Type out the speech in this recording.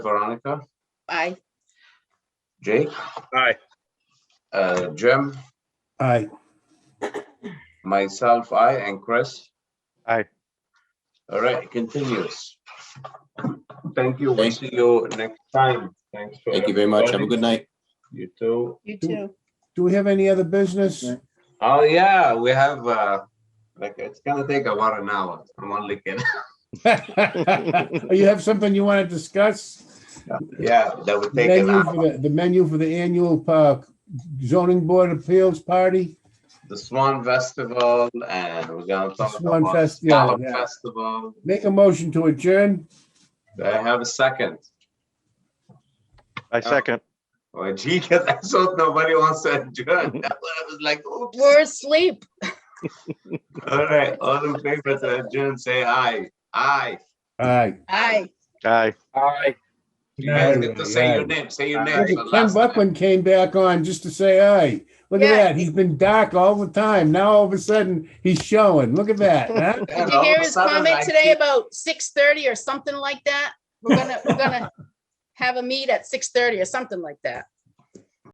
Veronica, Aye. Jake, Aye. uh, Jim, Aye. myself, I, and Chris. Aye. All right, it continues. Thank you. We'll see you next time. Thanks. for Thank you very much. Have a everybody. good night. You too. You Do- too. Do we have any other business? Oh, yeah, we have, uh, like, it's gonna take about an hour. I'm only kidding. Or You have something you want to discuss? Yeah, that would take an Menu hour. for the, the menu for the annual uh, zoning board appeals party? The Swan Festival and we're gonna talk Swan about Fest, yeah, Scallop yeah. Festival. Make a motion to adjourn? Do I have a second. I second. Oh, gee, that's what nobody wants to adjourn. I was like, oops. We're asleep. All right, all in favor to adjourn, say aye. Aye. Aye. Aye. Aye. Aye. You guys get to Aye. say your name, say your name. Look for at the Ken last time. Buckland came back on just to say aye. Look at Yeah. that. He's been dark all the time. Now all of a sudden, he's showing. Look at that. huh? And all Did you of hear a his sudden, I comment today keep- about six thirty or something like that? We're gonna, we're gonna have a meet at six thirty or something like that.